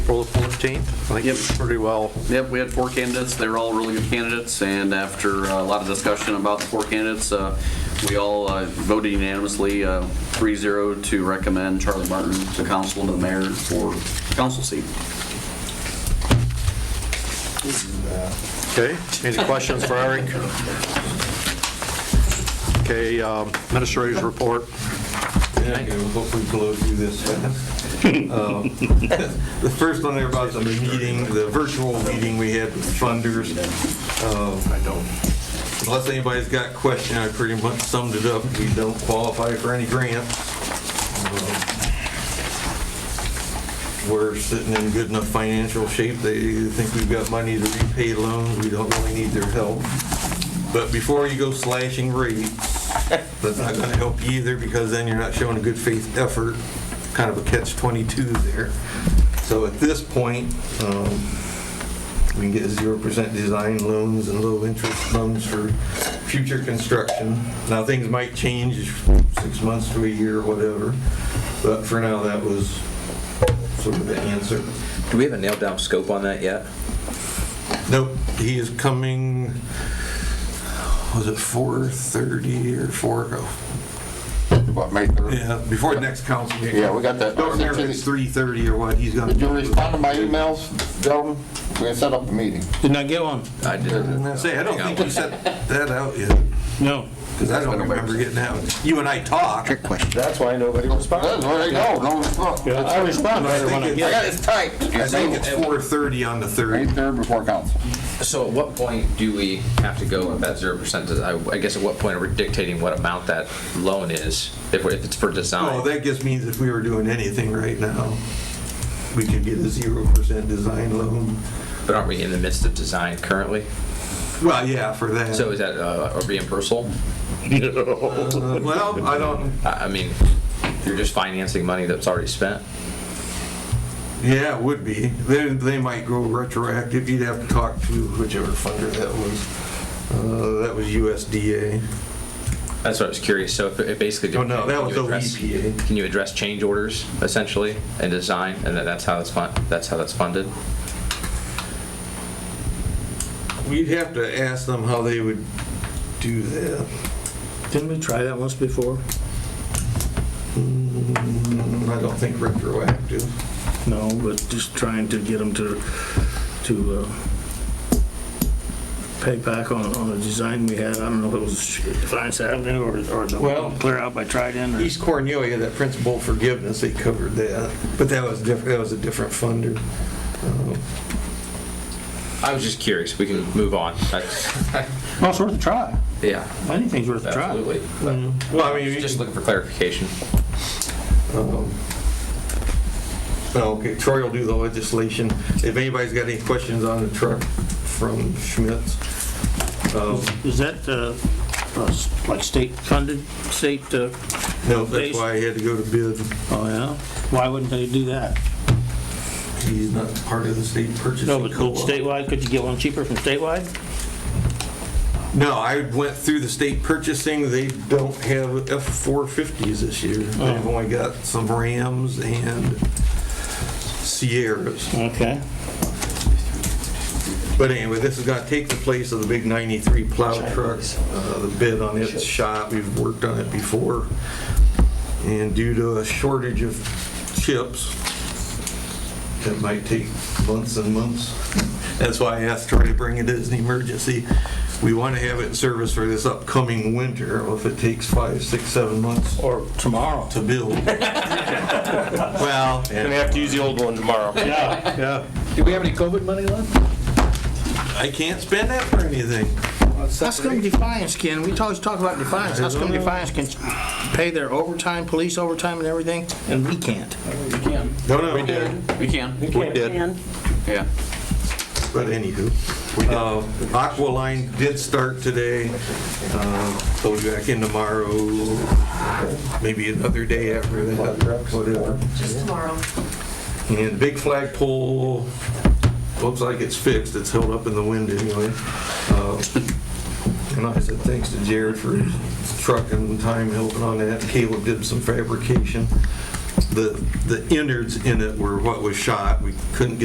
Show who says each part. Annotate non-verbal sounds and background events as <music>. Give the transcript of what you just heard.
Speaker 1: April 14th. I think
Speaker 2: Yep.
Speaker 1: it's pretty well,
Speaker 2: Yep, we had four candidates. They were all really good candidates, and after uh, a lot of discussion about the four candidates, uh, we all uh, voted unanimously, uh, 3-0, to recommend Charlie Martin to council and to the mayor for council seat.
Speaker 1: okay? Any questions for Eric? Okay, um, Administrator's report.
Speaker 3: Yeah, okay, we'll hopefully blow through this fast. Um, <laughs> The first one there about the meeting, the virtual meeting we had with funders. I don't. Unless anybody's got a question, I pretty much summed it up. We don't qualify for any grants. Um, We're sitting in good enough financial shape. They think we've got money to repay loans. We don't really need their help. But before you go slashing rates, that's not gonna help you either, because then you're not showing a good faith effort, kind of a catch 22 there. So at this point, um, we can get 0% design loans and low interest loans for future construction. Now, things might change six months to a year or whatever, but for now, that was sort of the answer.
Speaker 4: Do we have a nailed down scope on that yet?
Speaker 3: Nope, he is coming, was it 4:30 or 4?
Speaker 5: What, May 3rd?
Speaker 3: Yeah, before the next council meeting.
Speaker 5: Yeah, we got that.
Speaker 3: Don't remember if it's 3:30 or what, he's gonna.
Speaker 5: Did you respond to my emails, gentlemen? We had set up a meeting.
Speaker 6: Did not get one?
Speaker 4: I did.
Speaker 3: I Say, I don't think you sent that out yet,
Speaker 6: No.
Speaker 3: because I don't remember getting that one. You and I talk.
Speaker 7: That's why nobody responded.
Speaker 5: That's where they go, no, look. I
Speaker 6: I responded
Speaker 3: I
Speaker 6: when I
Speaker 3: think
Speaker 6: get
Speaker 5: got it typed.
Speaker 3: I think it's
Speaker 5: May
Speaker 3: 4:30 on the 3rd.
Speaker 5: 3rd before council.
Speaker 4: So at what point do we have to go with that zero percent? I, I guess at what point are we dictating what amount that loan is, if, we- if it's for
Speaker 3: Oh,
Speaker 4: design?
Speaker 3: that just means if we were doing anything right now, we could get a 0% design loan.
Speaker 4: But aren't we in the midst of design currently?
Speaker 3: Well, yeah, for that.
Speaker 4: So is that uh, a reimbursal?
Speaker 3: Uh, Well, I don't,
Speaker 4: I, I mean, you're just financing money that's already spent?
Speaker 3: yeah, it would be. They, they might go retroactive. You'd have to talk to whichever funder that was. Uh, That was USDA.
Speaker 4: That's what I was curious. So if it it basically.
Speaker 3: Oh, no, that was
Speaker 4: can you address-
Speaker 3: OEPA.
Speaker 4: Can you address change orders essentially and design, and that- that's how that's fun, that's how that's funded?
Speaker 3: We'd have to ask them how they would do that.
Speaker 6: Didn't we try that once before?
Speaker 3: Mm, I don't think retroactive.
Speaker 6: No, but just trying to get them to, to uh, pay back on, on the design we had. I don't know if it was Defiance Avenue or, or the
Speaker 3: Well-
Speaker 6: clear out by Trident or.
Speaker 3: East Cornelia, that principal forgiveness, they covered that, but that was different, that was a different funder.
Speaker 4: I was just curious. We can move on. That's-
Speaker 6: Well, it's worth a try.
Speaker 4: Yeah,
Speaker 6: Anything's worth a try. Mm-hmm.
Speaker 4: absolutely.
Speaker 3: Well, I mean,
Speaker 4: Just
Speaker 3: just,
Speaker 4: looking for clarification.
Speaker 3: okay, Troy will do the legislation. If anybody's got any questions on the truck from Schmitz, um,
Speaker 6: Is that, uh, uh, s- like state funded, state, uh,
Speaker 3: no, that's why I had to go to bid.
Speaker 6: oh yeah? Why wouldn't they do that?
Speaker 3: He's not part of the state purchasing.
Speaker 6: No, but could
Speaker 3: co-op.
Speaker 6: statewide, could you get one cheaper from statewide?
Speaker 3: No, I went through the state purchasing, they don't have F-450s this year. They've
Speaker 6: Oh.
Speaker 3: only got some Rams and Sierras.
Speaker 6: Okay.
Speaker 3: But anyway, this is gonna take the place of the big 93 plow truck. Uh, The bid on it's shot, we've worked on it before. And due to a shortage of chips, it might take months and months. <laughs> That's why I asked Troy to bring it as an emergency. We want to have it in service for this upcoming winter, Well, if it takes five, six, seven months
Speaker 6: Or tomorrow.
Speaker 3: to build. Well,
Speaker 7: Gonna have to use the old one tomorrow.
Speaker 6: Yeah, yeah.
Speaker 4: Do we have any COVID money left?
Speaker 3: I can't spend that for anything.
Speaker 6: How come Defiance can, we always talk about Defiance, how come Defiance can pay their overtime, police overtime and everything, and we can't?
Speaker 3: No, no, we did.
Speaker 2: We can,
Speaker 3: We did.
Speaker 2: yeah.
Speaker 3: But anywho, uh, Aqualine did start today. Uh, They'll be back in tomorrow, maybe another day after that, whatever.
Speaker 8: Just tomorrow.
Speaker 3: And Big Flag Pole, looks like it's fixed, it's held up in the wind anyway. Uh, And I said thanks to Jared for his truck and time helping on that. Caleb did some fabrication. The the innards in it were what was shot, we couldn't get